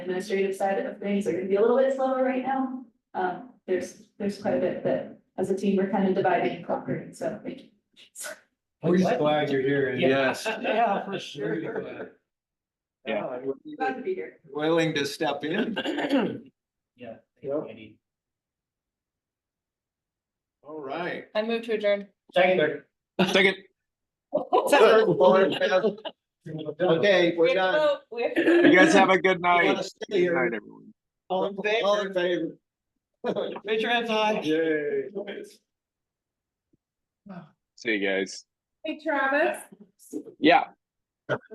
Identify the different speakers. Speaker 1: administrative side of things are gonna be a little bit slower right now. Um, there's, there's quite a bit that, as a team, we're kind of dividing and conquering, so thank you.
Speaker 2: We're just glad you're here.
Speaker 3: Yeah. Yes.
Speaker 2: Yeah, for
Speaker 3: Really
Speaker 2: sure.
Speaker 3: glad. Yeah.
Speaker 2: Oh, and we're
Speaker 1: Glad to be here.
Speaker 3: Willing to step in.
Speaker 2: Yeah.
Speaker 3: Yep. All right.
Speaker 4: I move to adjourn.
Speaker 2: Second.
Speaker 3: Second. Okay,
Speaker 4: We
Speaker 3: we're
Speaker 4: have to
Speaker 3: done.
Speaker 4: vote. We have to vote.
Speaker 5: You guys have a good
Speaker 3: You
Speaker 5: night.
Speaker 3: wanna stay
Speaker 5: Good night,
Speaker 3: here?
Speaker 5: everyone.
Speaker 3: All in favor? All in favor.
Speaker 2: Raise your hands high.
Speaker 3: Yay.
Speaker 5: See you guys.
Speaker 4: Hey, Travis.
Speaker 5: Yeah.